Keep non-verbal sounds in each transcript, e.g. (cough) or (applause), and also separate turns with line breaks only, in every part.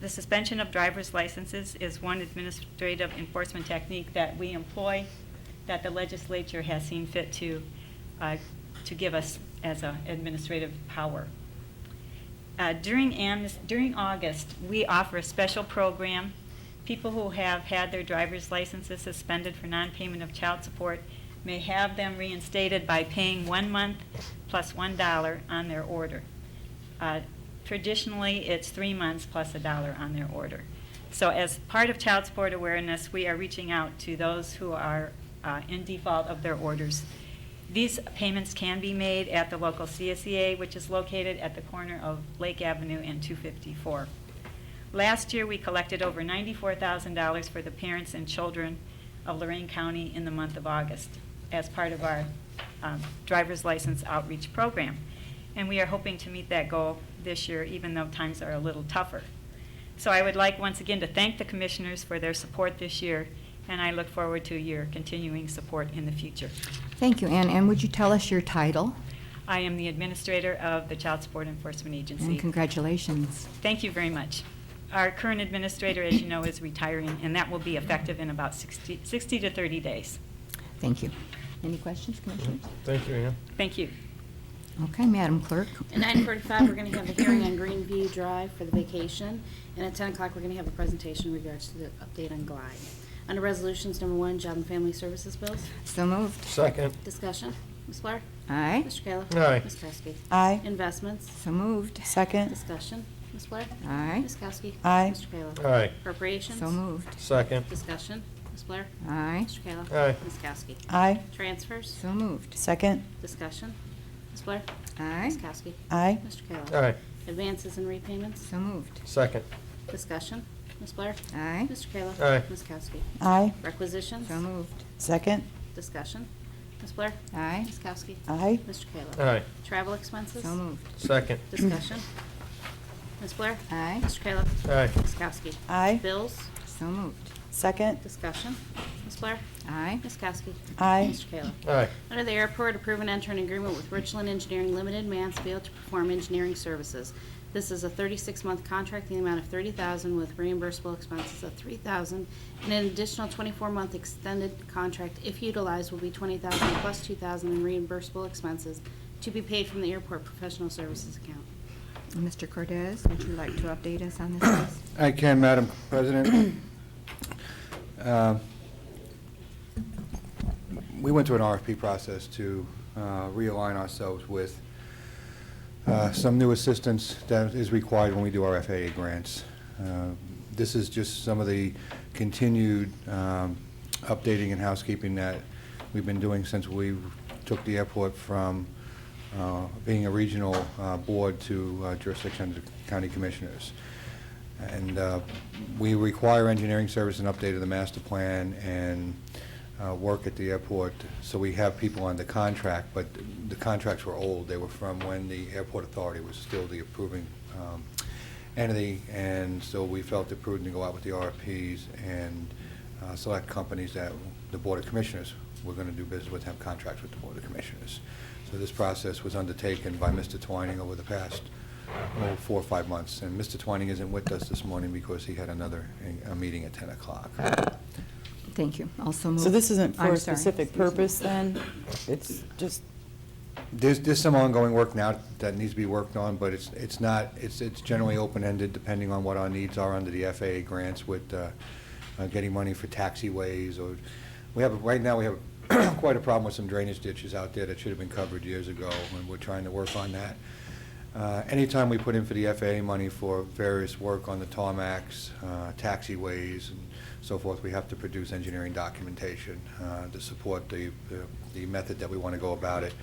The suspension of driver's licenses is one administrative enforcement technique that we employ, that the legislature has seen fit to, uh, to give us as an administrative power. Uh, During amnes, during August, we offer a special program. People who have had their driver's licenses suspended for non-payment of child support may have them reinstated by paying one month plus one dollar on their order. Uh, Traditionally, it's three months plus a dollar on their order. So as part of child support awareness, we are reaching out to those who are uh, in default of their orders. These payments can be made at the local CSEA, which is located at the corner of Lake Avenue and 254. Last year, we collected over $94,000 for the parents and children of Lorraine County in the month of August as part of our um, driver's license outreach program. And we are hoping to meet that goal this year, even though times are a little tougher. So I would like once again to thank the commissioners for their support this year, and I look forward to your continuing support in the future.
Thank you, Ann. And would you tell us your title?
I am the administrator of the Child Support Enforcement Agency.
And congratulations.
Thank you very much. Our current administrator, as you know, is retiring, and that will be effective in about 60 60 to 30 days.
Thank you. Any questions, Commissioners?
Thank you, Ann.
Thank you.
Okay, Madam Clerk.
At nine forty-five, we're gonna have a hearing on Greenview Drive for the vacation, and at ten o'clock, we're gonna have a presentation in regards to the update on Glide. Under Resolutions Number One, Job and Family Services Bills,
So moved.
Second,
discussion, Ms. Blair?
Aye.
Mr. Kayla?
Aye.
Ms. Kowski?
Aye.
Investments,
So moved.
Second.
discussion, Ms. Blair?
Aye.
Ms. Kowski?
Aye.
Mr. Kayla?
Aye.
Appropriations?
So moved.
second,
Discussion, Ms. Blair?
Aye.
Mr. Kayla?
Aye.
Ms. Kowski?
Aye.
Transfers,
So moved.
Second.
discussion, Ms. Blair?
Aye.
Ms. Kowski?
Aye.
Mr. Kayla?
aye,
Advances and repayments,
So moved.
second,
Discussion, Ms. Blair?
Aye.
Mr. Kayla?
Aye.
Ms. Kowski?
Aye.
Requisitions?
So moved.
Second.
Discussion, Ms. Blair?
Aye.
Ms. Kowski?
Aye.
Mr. Kayla?
aye,
Travel expenses?
So moved.
second,
Discussion, Ms. Blair?
Aye.
Mr. Kayla?
aye,
Ms. Kowski?
Aye.
Bills?
So moved.
Second.
Discussion, Ms. Blair?
Aye.
Ms. Kowski?
Aye.
Mr. Kayla?
aye,
Under the airport, approve and enter an agreement with Richland Engineering Limited, Mansfield, to perform engineering services. This is a 36-month contract in the amount of $30,000 with reimbursable expenses of $3,000, and an additional 24-month extended contract, if utilized, will be $20,000 plus $2,000 in reimbursable expenses to be paid from the airport professional services account.
Mr. Cordez, would you like to update us on this, please?
I can, Madam President. Uh, We went through an RFP process to uh, realign ourselves with uh, some new assistance that is required when we do our FAA grants. Uh, This is just some of the continued um, updating and housekeeping that we've been doing since we took the airport from uh, being a regional uh, board to uh, jurisdiction of the county commissioners. And uh, we require engineering service and update of the master plan and uh, work at the airport, so we have people on the contract, but the contracts were old. They were from when the airport authority was still the approving um, entity, and so we felt it prudent to go out with the RFPs and uh, select companies that the Board of Commissioners were going to do business with, have contracts with the Board of Commissioners. So this process was undertaken by Mr. Twining over the past oh, four or five months. And Mr. Twining isn't with us this morning because he had another, a meeting at 10 o'clock.
Thank you. Also moved.
So this isn't for
I'm
a
sorry.
specific
Excuse me.
purpose, then? It's just,
There's, there's some ongoing work now that needs to be worked on, but it's, it's not, it's, it's generally open-ended depending on what our needs are under the FAA grants with uh, uh, getting money for taxiways or, we have, right now, we have (clears throat) quite a problem with some drainage ditches out there that should have been covered years ago, and we're trying to work on that. Uh, Anytime we put in for the FAA money for various work on the tarmacs, uh, taxiways, and so forth, we have to produce engineering documentation uh, to support the, the- the method that we want to go about it.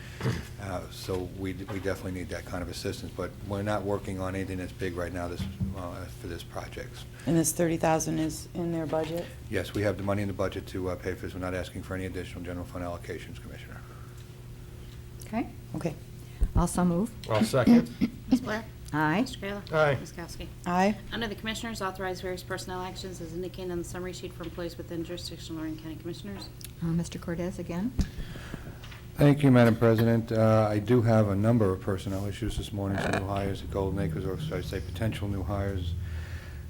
Uh, So we we definitely need that kind of assistance, but we're not working on anything that's big right now this, uh, for this project.
and this 30,000 is in their budget?
Yes, we have the money in the budget to uh, pay for this, we're not asking for any additional general fund allocations, Commissioner.
Okay.
Okay.
Also moved.
I'll second,
Ms. Blair?
Aye.
Mr. Kayla?
Aye.
Ms. Kowski?
Aye.
Under the Commissioners, authorize various personnel actions as indicated on the summary sheet for employees within jurisdiction of Lorraine County Commissioners.
Uh, Mr. Cordez again.
Thank you, Madam President. Uh, I do have a number of personnel issues this morning, some new hires at Golden Acres, or should I say potential new hires